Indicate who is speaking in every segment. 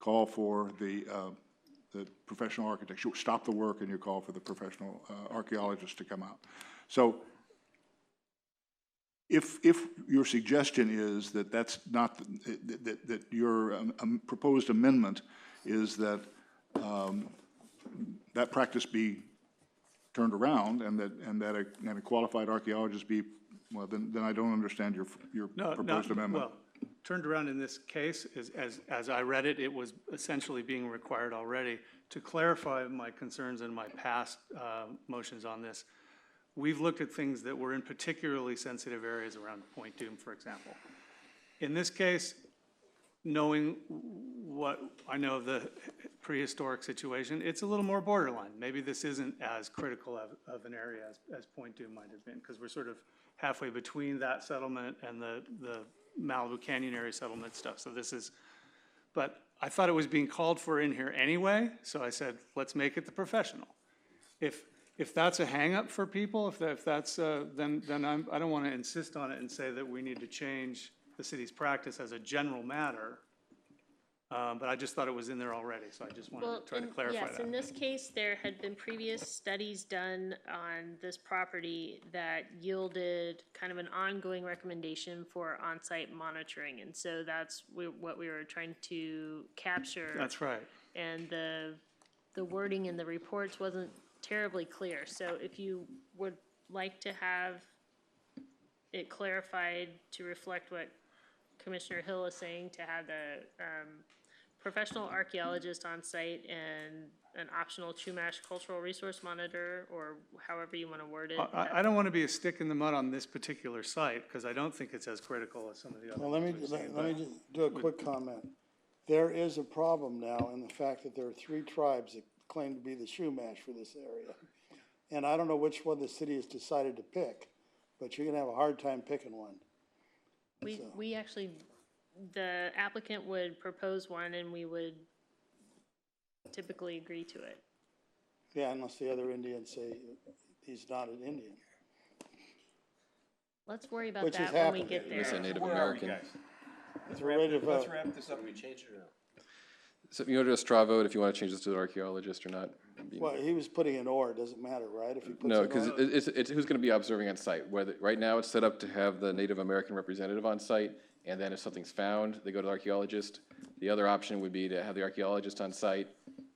Speaker 1: call for the, uh, the professional architects. You stop the work and you call for the professional uh, archaeologists to come out. So if, if your suggestion is that that's not, that, that- that your um, um, proposed amendment is that um, that practice be turned around and that, and that a, and a qualified archaeologist be, well, then, then I don't understand your, your
Speaker 2: No, no,
Speaker 1: proposed amendment.
Speaker 2: Well, turned around in this case, is, as, as I read it, it was essentially being required already. To clarify my concerns and my past, uh, motions on this, we've looked at things that were in particularly sensitive areas around Point Doom, for example. In this case, knowing what I know of the prehistoric situation, it's a little more borderline. Maybe this isn't as critical of, of an area as, as Point Doom might have been, because we're sort of halfway between that settlement and the, the Malibu Canyon area settlement stuff. So this is, but I thought it was being called for in here anyway, so I said, let's make it the professional. If, if that's a hangup for people, if that, if that's, uh, then, then I'm, I don't want to insist on it and say that we need to change the city's practice as a general matter. Uh, but I just thought it was in there already, so I just wanted
Speaker 3: Well,
Speaker 2: to try to
Speaker 3: in-
Speaker 2: clarify
Speaker 3: Yes,
Speaker 2: that.
Speaker 3: in this case, there had been previous studies done on this property that yielded kind of an ongoing recommendation for on-site monitoring. And so that's we- what we were trying to capture.
Speaker 2: That's right.
Speaker 3: And the, the wording in the reports wasn't terribly clear. So if you would like to have it clarified to reflect what Commissioner Hill is saying, to have the um, professional archaeologist on site and an optional Chumash cultural resource monitor, or however you want to word it.
Speaker 2: I- I, I don't want to be a stick in the mud on this particular site, because I don't think it's as critical as some of the
Speaker 4: Well,
Speaker 2: others.
Speaker 4: let me, let let me just do a quick comment. There is a problem now in the fact that there are three tribes that claim to be the Shumash for this area. And I don't know which one the city has decided to pick, but you're gonna have a hard time picking one.
Speaker 3: We, we actually, the applicant would propose one and we would typically agree to it.
Speaker 4: Yeah, unless the other Indians say he's not an Indian.
Speaker 3: Let's worry about
Speaker 4: Which is
Speaker 3: that when we
Speaker 4: happening.
Speaker 3: get there.
Speaker 5: It's a Native
Speaker 6: Where are we,
Speaker 5: American.
Speaker 6: guys?
Speaker 4: It's ready to
Speaker 6: Let's
Speaker 4: vote.
Speaker 6: wrap this up. Can we change it or
Speaker 5: So you want to do a straw vote if you want to change this to an archaeologist or not? Be-
Speaker 4: Well, he was putting an or, doesn't matter, right? If he puts
Speaker 5: No,
Speaker 4: an
Speaker 5: because
Speaker 4: or.
Speaker 5: it's, it's who's going to be observing on site. Whether, right now, it's set up to have the Native American representative on site, and then if something's found, they go to the archaeologist. The other option would be to have the archaeologist on site,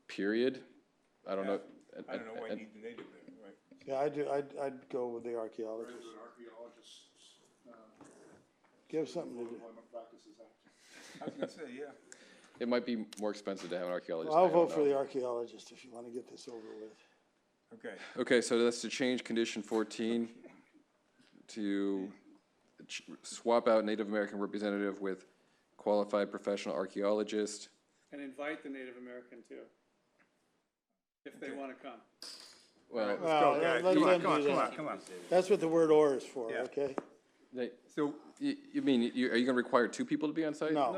Speaker 5: period. I don't know.
Speaker 6: I don't know why I
Speaker 5: Uh,
Speaker 6: need the native there, right?
Speaker 4: Yeah, I'd, do- I'd, I'd go with the archaeologist. Give something to do.
Speaker 6: I was gonna say, yeah.
Speaker 5: It might be more expensive to have an archaeologist. I
Speaker 4: I'll
Speaker 5: don't
Speaker 4: vote for
Speaker 5: know.
Speaker 4: the archaeologist if you wanna get this over with.
Speaker 6: Okay.
Speaker 5: Okay, so that's to change condition fourteen to ch- swap out Native American representative with qualified professional archaeologist.
Speaker 2: And invite the Native American too, if they want to come.
Speaker 5: Well,
Speaker 4: Well,
Speaker 6: guys.
Speaker 4: let
Speaker 6: Come on,
Speaker 4: them
Speaker 6: come on,
Speaker 4: do
Speaker 6: come
Speaker 4: that.
Speaker 6: on, come on.
Speaker 4: That's what the word or is for,
Speaker 6: Yeah.
Speaker 4: okay?
Speaker 5: they,
Speaker 6: So,
Speaker 5: you, you mean, you, are you gonna require two people to be on site?
Speaker 4: No,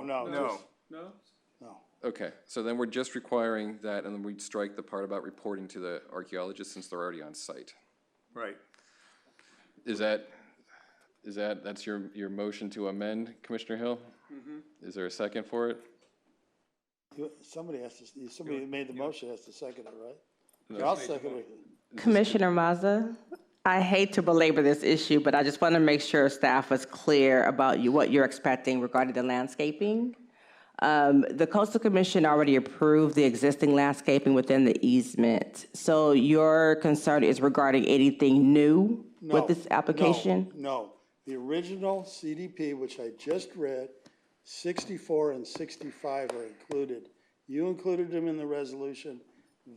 Speaker 4: no, no,
Speaker 6: no.
Speaker 4: just-
Speaker 2: No?
Speaker 4: no.
Speaker 5: Okay, so then we're just requiring that, and then we'd strike the part about reporting to the archaeologist since they're already on site.
Speaker 6: Right.
Speaker 5: Is that, is that, that's your, your motion to amend, Commissioner Hill?
Speaker 4: Mm-hmm.
Speaker 5: Is there a second for it?
Speaker 4: You- Somebody has to, somebody who made the motion has to second it, right? I'll second it.
Speaker 7: Commissioner Mazza, I hate to belabor this issue, but I just want to make sure staff was clear about you, what you're expecting regarding the landscaping. Um, The Coastal Commission already approved the existing landscaping within the easement. So your concern is regarding anything new
Speaker 4: No,
Speaker 7: with this
Speaker 4: no,
Speaker 7: application?
Speaker 4: No, the original CDP, which I just read, sixty-four and sixty-five are included. You included them in the resolution.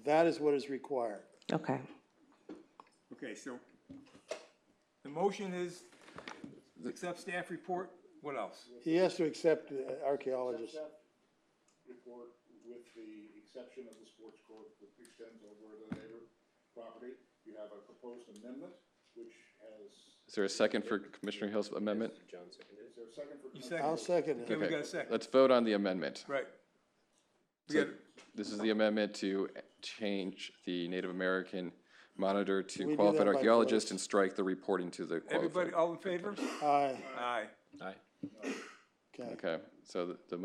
Speaker 4: That is what is required.
Speaker 7: Okay.
Speaker 6: Okay, so the motion is accept staff report. What else?
Speaker 4: He has to accept the archaeologist.
Speaker 1: Report with the exception of the sports court that extends over the neighbor property. You have a proposed amendment, which has,
Speaker 5: Is there a second for Commissioner Hill's amendment?
Speaker 1: is there a second for?
Speaker 6: You
Speaker 4: I'll
Speaker 6: second.
Speaker 4: second it.
Speaker 6: We
Speaker 5: Okay,
Speaker 6: got a second.
Speaker 5: Let's vote on the amendment.
Speaker 6: Right. We
Speaker 5: So
Speaker 6: got-
Speaker 5: This is the amendment to change the Native American monitor
Speaker 4: we
Speaker 5: to
Speaker 4: do
Speaker 5: qualified
Speaker 4: that by
Speaker 5: archaeologist
Speaker 4: voice?
Speaker 5: and strike the reporting to the
Speaker 6: Everybody,
Speaker 5: qualified.
Speaker 6: all in favor?
Speaker 4: Aye,
Speaker 6: Aye.
Speaker 4: okay.
Speaker 5: Okay, so the- the